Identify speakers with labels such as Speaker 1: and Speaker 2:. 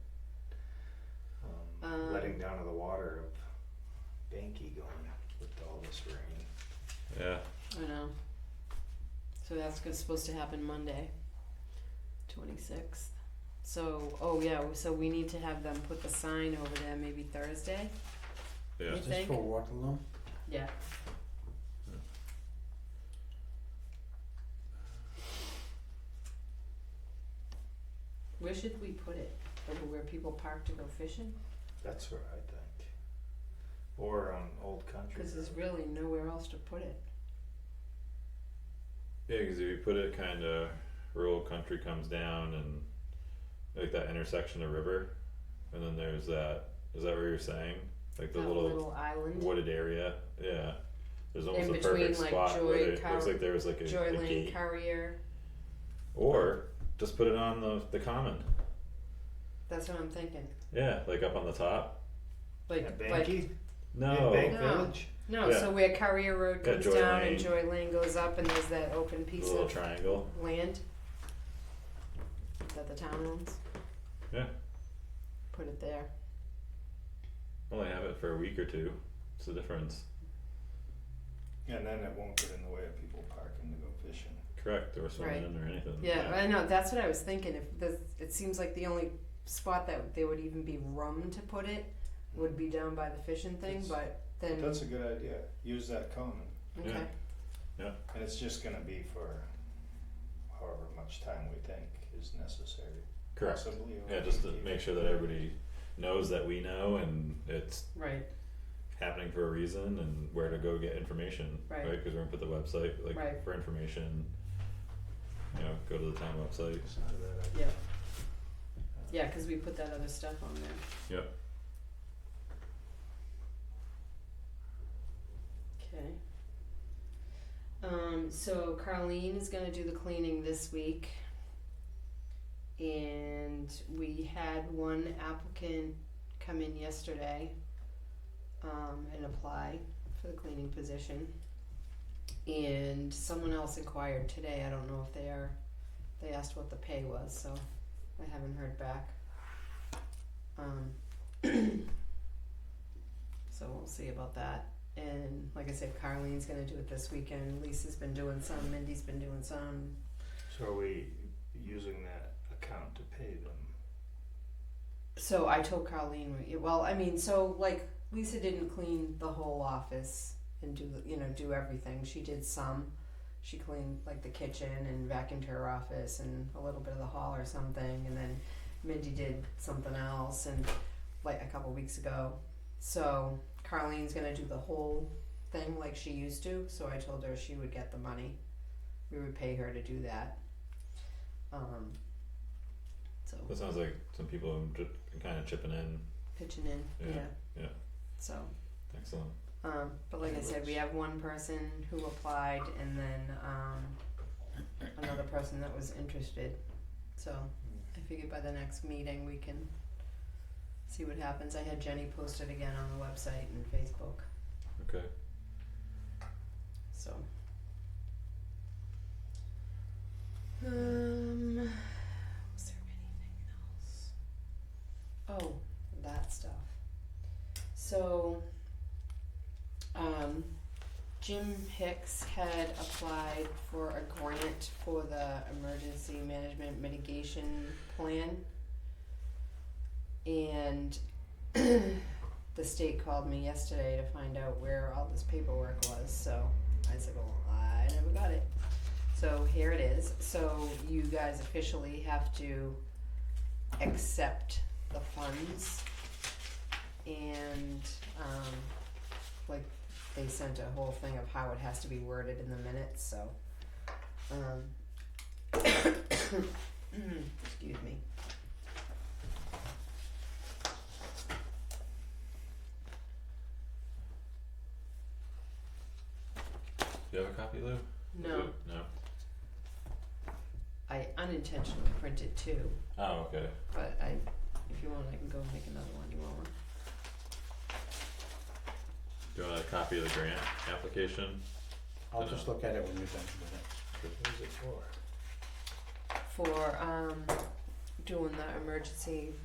Speaker 1: Um,
Speaker 2: Um,
Speaker 1: down to the water of Banky going with all this rain.
Speaker 3: Yeah.
Speaker 2: I know. So that's go- supposed to happen Monday, twenty sixth. So, oh yeah, so we need to have them put the sign over there maybe Thursday.
Speaker 3: Yeah.
Speaker 2: You
Speaker 4: Is this
Speaker 2: think?
Speaker 4: for Waterloo?
Speaker 2: Yeah. Where should we put it? Over where people park to go fishing?
Speaker 1: That's what I think. Or on Old Country.
Speaker 2: Cause there's
Speaker 1: Road.
Speaker 2: really nowhere else to put it.
Speaker 3: Yeah, because if you put it kind of rural country comes down and like that intersection of river, and then there's that. Is that what you're saying? Like the
Speaker 2: That
Speaker 3: little,
Speaker 2: little island.
Speaker 3: wooded area. Yeah. There's almost
Speaker 2: In
Speaker 3: a
Speaker 2: between,
Speaker 3: perfect
Speaker 2: like,
Speaker 3: spot where
Speaker 2: Joy
Speaker 3: there, looks
Speaker 2: Cow-
Speaker 3: like there was like a, a
Speaker 2: Joyland
Speaker 3: gate.
Speaker 2: Courier.
Speaker 3: or just put it on the the common.
Speaker 2: That's what I'm thinking.
Speaker 3: Yeah, like up on the top.
Speaker 1: At
Speaker 2: Like like
Speaker 1: Banky?
Speaker 3: No.
Speaker 1: Bank
Speaker 2: No.
Speaker 1: Village?
Speaker 2: No,
Speaker 3: Yeah.
Speaker 2: so where Carrier Road
Speaker 3: Yeah,
Speaker 2: comes
Speaker 3: Joy
Speaker 2: down
Speaker 3: Lane.
Speaker 2: and Joy Lane goes up, and there's that open
Speaker 3: the
Speaker 2: piece
Speaker 3: little
Speaker 2: of
Speaker 3: triangle.
Speaker 2: land that the town owns.
Speaker 3: Yeah. Mm-hmm.
Speaker 2: Put it there.
Speaker 3: Only have it for a week or two. It's the difference.
Speaker 1: And then it won't get in the way of people parking to go fishing.
Speaker 3: Correct, or swimming or anything.
Speaker 2: Yeah, I know. That's what I was thinking. If this, it seems like the only spot that they would even be room to put it would be down by the fishing thing,
Speaker 1: It's-
Speaker 2: but then
Speaker 1: That's a good idea. Use that common.
Speaker 2: okay,
Speaker 3: yeah.
Speaker 1: And it's just gonna be for however much time we think is necessary.
Speaker 3: Correct.
Speaker 1: Possibly over
Speaker 3: Yeah, just to
Speaker 1: eight
Speaker 3: make
Speaker 1: years.
Speaker 3: sure that everybody knows that we know and it's
Speaker 2: right,
Speaker 3: happening for a reason and where to go get information,
Speaker 2: Right.
Speaker 3: right? Because we're gonna put the website like
Speaker 2: Right.
Speaker 3: for information. You know, go to the town website.
Speaker 1: It's not a bad idea.
Speaker 2: yeah, yeah, because we put that other stuff on there.
Speaker 3: Yep.
Speaker 2: Okay. Um, so Carleen is gonna do the cleaning this week. And we had one applicant come in yesterday, um, and apply for the cleaning position. And someone else inquired today, I don't know if they are, they asked what the pay was, so I haven't heard back. Um, so we'll see about that. And like I said, Carlene's gonna do it this weekend. Lisa's been doing some, Mindy's been doing some.
Speaker 1: So are we using that account to pay them?
Speaker 2: So I told Carlene, we- well, I mean, so like Lisa didn't clean the whole office and do, you know, do everything. She did some. She cleaned like the kitchen and vacuumed her office and a little bit of the hall or something. And then Mindy did something else and like a couple weeks ago. So Carlene's gonna do the whole thing like she used to. So I told her she would get the money. We would pay her to do that. Um, so
Speaker 3: That sounds like some people have ju- been kind of chipping in.
Speaker 2: pitching in.
Speaker 3: Yeah,
Speaker 2: Yeah.
Speaker 3: yeah.
Speaker 2: So,
Speaker 3: Excellent.
Speaker 2: um, but like I said, we have one person who applied and then um, another person that was interested. So I figured by the next meeting we can see what happens. I had Jenny post it again on the website and Facebook.
Speaker 3: Okay.
Speaker 2: So. Um, was there anything else? Oh, that stuff. So, um, Jim Hicks had applied for a grant for the emergency management mitigation plan. And the state called me yesterday to find out where all this paperwork was, so I said, well, I never got it. So here it is. So you guys officially have to accept the funds. And, um, like, they sent a whole thing of how it has to be worded in the minutes, so, um. Excuse me.
Speaker 3: Do you have a copy, Lou?
Speaker 2: No,
Speaker 3: Good. No.
Speaker 2: I unintentionally printed two.
Speaker 3: Oh, okay.
Speaker 2: But I, if you want, I can go make another one. You want one?
Speaker 3: Do you want a copy of the grant application?
Speaker 4: I'll
Speaker 3: Dunno.
Speaker 4: just look at it when you're done with it.
Speaker 1: What is it for?
Speaker 2: For um, doing the emergency